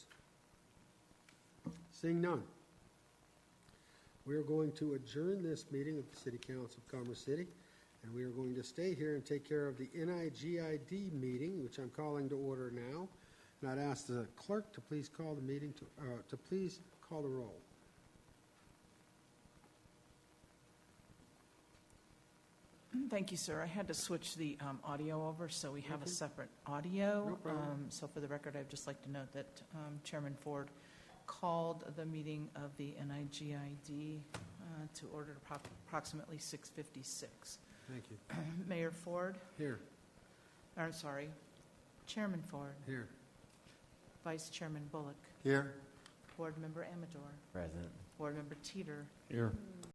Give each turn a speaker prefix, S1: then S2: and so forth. S1: Seeing none. We are going to adjourn this meeting of the City Council of Commerce City, and we are going to stay here and take care of the NIGID meeting, which I'm calling to order now. And I'd ask the clerk to please call the meeting to, uh, to please call the roll.
S2: Thank you, sir. I had to switch the um, audio over, so we have a separate audio.
S1: No problem.
S2: Um, So for the record, I'd just like to note that um, Chairman Ford called the meeting of the NIGID uh, to order at appro- approximately 6:56.
S1: Thank you.
S2: Mayor Ford,
S1: Here,
S2: or I'm sorry, Chairman Ford,
S1: here.
S2: Vice Chairman Bullock,
S1: Here.
S2: Board Member Amador,
S3: Present.
S2: Board Member Teeter,
S3: Here.